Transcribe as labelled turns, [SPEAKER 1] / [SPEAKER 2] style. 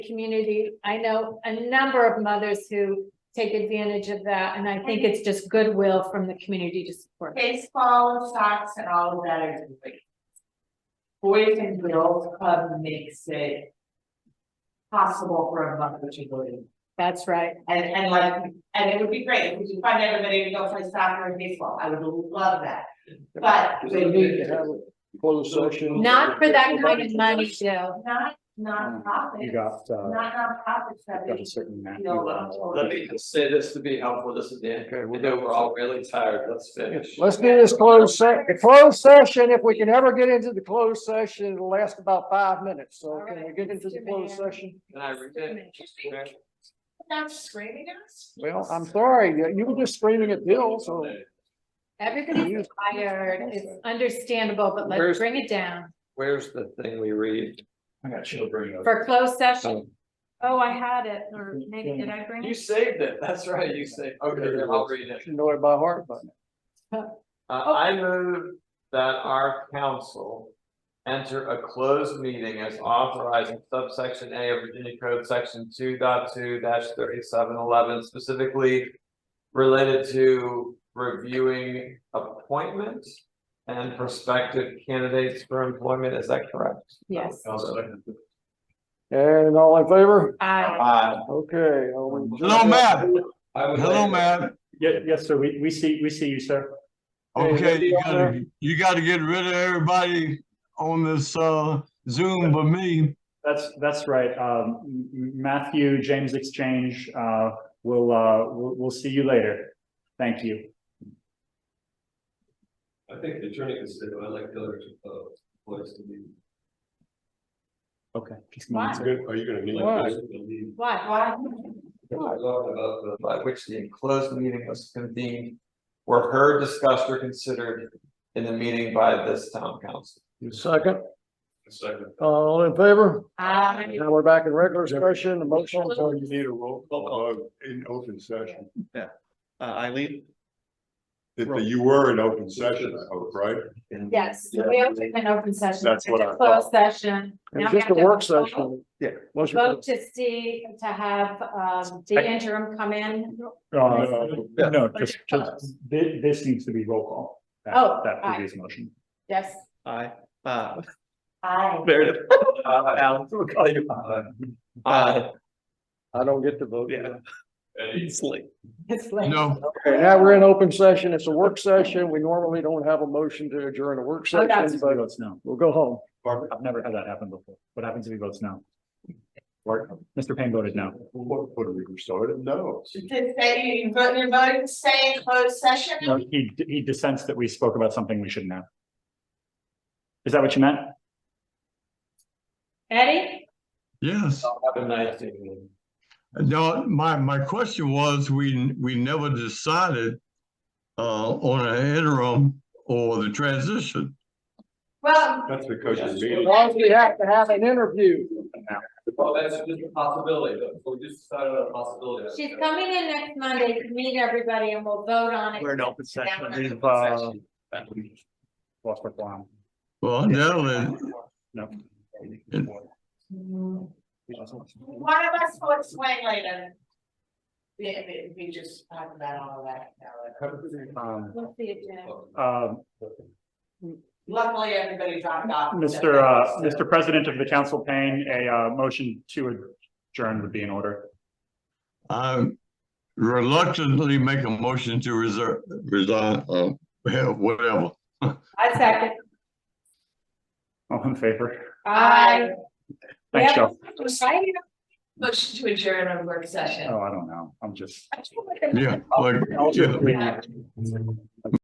[SPEAKER 1] community. I know a number of mothers who take advantage of that, and I think it's just goodwill from the community to support. it.
[SPEAKER 2] baseball, socks and all of that are great. Boys and girls club makes it. Possible for a mother to go in,
[SPEAKER 1] That's right.
[SPEAKER 2] and and like, and it would be great, if we could find everybody to go play soccer and baseball, I would love that. But
[SPEAKER 3] Is
[SPEAKER 2] they
[SPEAKER 3] it
[SPEAKER 2] need
[SPEAKER 3] need to have a closed session?
[SPEAKER 1] Not for that kind of money, Joe.
[SPEAKER 2] not nonprofits.
[SPEAKER 4] Mm, You got, uh,
[SPEAKER 2] Not nonprofits that
[SPEAKER 4] got a
[SPEAKER 2] is,
[SPEAKER 4] certain. amount.
[SPEAKER 2] feel about
[SPEAKER 5] Let me just say this to be helpful, this is Dan,
[SPEAKER 3] Okay,
[SPEAKER 5] I
[SPEAKER 3] we'll
[SPEAKER 5] know
[SPEAKER 3] go.
[SPEAKER 5] we're all really tired, let's finish.
[SPEAKER 3] Let's do this closed se- the closed session, if we can ever get into the closed session, it'll last about five minutes, so can we get into the closed session?
[SPEAKER 5] Can I read it? Okay.
[SPEAKER 2] not screaming at us.
[SPEAKER 3] Well, I'm sorry, you- you were just screaming at Bill, so.
[SPEAKER 1] Everybody's tired. It's understandable, but let's
[SPEAKER 5] Where's-
[SPEAKER 1] bring it down
[SPEAKER 5] Where's the thing we read?
[SPEAKER 4] I got children.
[SPEAKER 1] for closed session. Oh, I had it, or maybe did I bring
[SPEAKER 5] You
[SPEAKER 1] it?
[SPEAKER 5] saved it, that's right, you saved, okay, then I'll read it.
[SPEAKER 3] You know it by heart, but
[SPEAKER 5] Uh, I move that our council enter a closed meeting as authorized in subsection A of Virginia Code Section 22 thirty-seven eleven specifically related to reviewing appointments and prospective candidates for employment, is that correct?
[SPEAKER 1] Yes.
[SPEAKER 3] and all in favor?
[SPEAKER 1] I,
[SPEAKER 5] Uh,
[SPEAKER 3] Okay. all in-
[SPEAKER 6] Hello, Matt.
[SPEAKER 5] I would
[SPEAKER 6] Hello,
[SPEAKER 5] like-
[SPEAKER 6] Matt.
[SPEAKER 4] Yeah, yes, sir. We, we see, we see you, sir.
[SPEAKER 6] Okay, you gotta, you gotta get rid of everybody on this, uh, Zoom but me.
[SPEAKER 4] That's, that's right. Um, M- M- Matthew, James Exchange, uh, we'll, uh, we'll, we'll see you later. Thank you.
[SPEAKER 7] I think the attorney can say, I like the other, uh, place to be.
[SPEAKER 4] Okay. Just a
[SPEAKER 1] why,
[SPEAKER 4] moment, sir.
[SPEAKER 7] Are you gonna need?
[SPEAKER 3] Why?
[SPEAKER 7] Talking
[SPEAKER 1] why?
[SPEAKER 2] Why?
[SPEAKER 5] about the, by which the enclosed meeting was convened, were heard, discussed, or considered in the meeting by this town council.
[SPEAKER 3] You Second,
[SPEAKER 7] Second.
[SPEAKER 3] all in favor?
[SPEAKER 1] I,
[SPEAKER 3] Now we're back in regular session, the motion.
[SPEAKER 6] you need a roll call in open session.
[SPEAKER 8] Uh, Eileen?
[SPEAKER 6] That you were in open session, I hope, right?
[SPEAKER 1] yes, we opened an open session.
[SPEAKER 6] That's what I
[SPEAKER 1] It's a Closed session. Now
[SPEAKER 3] It's
[SPEAKER 1] we
[SPEAKER 3] just
[SPEAKER 1] have
[SPEAKER 3] a
[SPEAKER 1] to vote.
[SPEAKER 3] work session.
[SPEAKER 8] Yeah.
[SPEAKER 3] Motion.
[SPEAKER 1] Vote to see, to have, um, the interim come in.
[SPEAKER 4] Uh, no, just,
[SPEAKER 1] Budget
[SPEAKER 4] just,
[SPEAKER 1] close.
[SPEAKER 4] thi- this needs to be roll call. That-
[SPEAKER 1] Oh,
[SPEAKER 4] That
[SPEAKER 1] aye.
[SPEAKER 4] previous motion.
[SPEAKER 1] Yes.
[SPEAKER 8] Aye. Uh,
[SPEAKER 2] I,
[SPEAKER 8] there it is. Alan, we'll call you. Uh,
[SPEAKER 3] I don't get to vote.
[SPEAKER 8] yeah. It's late.
[SPEAKER 1] It's late.
[SPEAKER 6] No,
[SPEAKER 3] Okay, now we're in open session. It's a work session. We normally don't have a motion to adjourn a work
[SPEAKER 1] Oh, that's-
[SPEAKER 3] session,
[SPEAKER 4] Everybody
[SPEAKER 3] but
[SPEAKER 4] votes no.
[SPEAKER 3] we'll go home.
[SPEAKER 4] Barbara, I've never had that happen before. What happens if he votes no? Mr. Payne voted no.
[SPEAKER 6] what, Puerto Rico started, no.
[SPEAKER 2] you did say you, you voted, you voted to stay in closed session?
[SPEAKER 4] No, he, he dissents that we spoke about something we shouldn't have. Is that what you meant?
[SPEAKER 1] Eddie?
[SPEAKER 6] Yes.
[SPEAKER 5] Have a nice evening.
[SPEAKER 6] No, my, my question was, we, we never decided uh, on an interim or the transition.
[SPEAKER 2] Well,
[SPEAKER 6] That's because
[SPEAKER 5] you're
[SPEAKER 3] As long as we have to have an interview.
[SPEAKER 5] Well, that's just a possibility, but we just decided on a possibility.
[SPEAKER 1] She's coming in next Monday to meet everybody and we'll vote on it.
[SPEAKER 8] We're in open session.
[SPEAKER 4] We've, uh, Lost my line.
[SPEAKER 6] Well, now that,
[SPEAKER 4] No.
[SPEAKER 2] Mm. One of us will explain later. We, we, we just talked about all of that.
[SPEAKER 4] Um,
[SPEAKER 1] We'll see it, Jen.
[SPEAKER 4] um,
[SPEAKER 2] Luckily, everybody dropped off.
[SPEAKER 4] Mr. Uh, Mr. President of the Council Payne, a, uh, motion to adjourn would be in order.
[SPEAKER 6] I reluctantly make a motion to reserve, resign, uh, hell, whatever.
[SPEAKER 1] I second.
[SPEAKER 4] All in favor?
[SPEAKER 1] Aye.
[SPEAKER 4] Thanks,
[SPEAKER 1] Yeah.
[SPEAKER 4] Joe.
[SPEAKER 1] Right?
[SPEAKER 2] Motion to adjourn on work session.
[SPEAKER 4] Oh, I don't know. I'm just.
[SPEAKER 6] Yeah, like, yeah.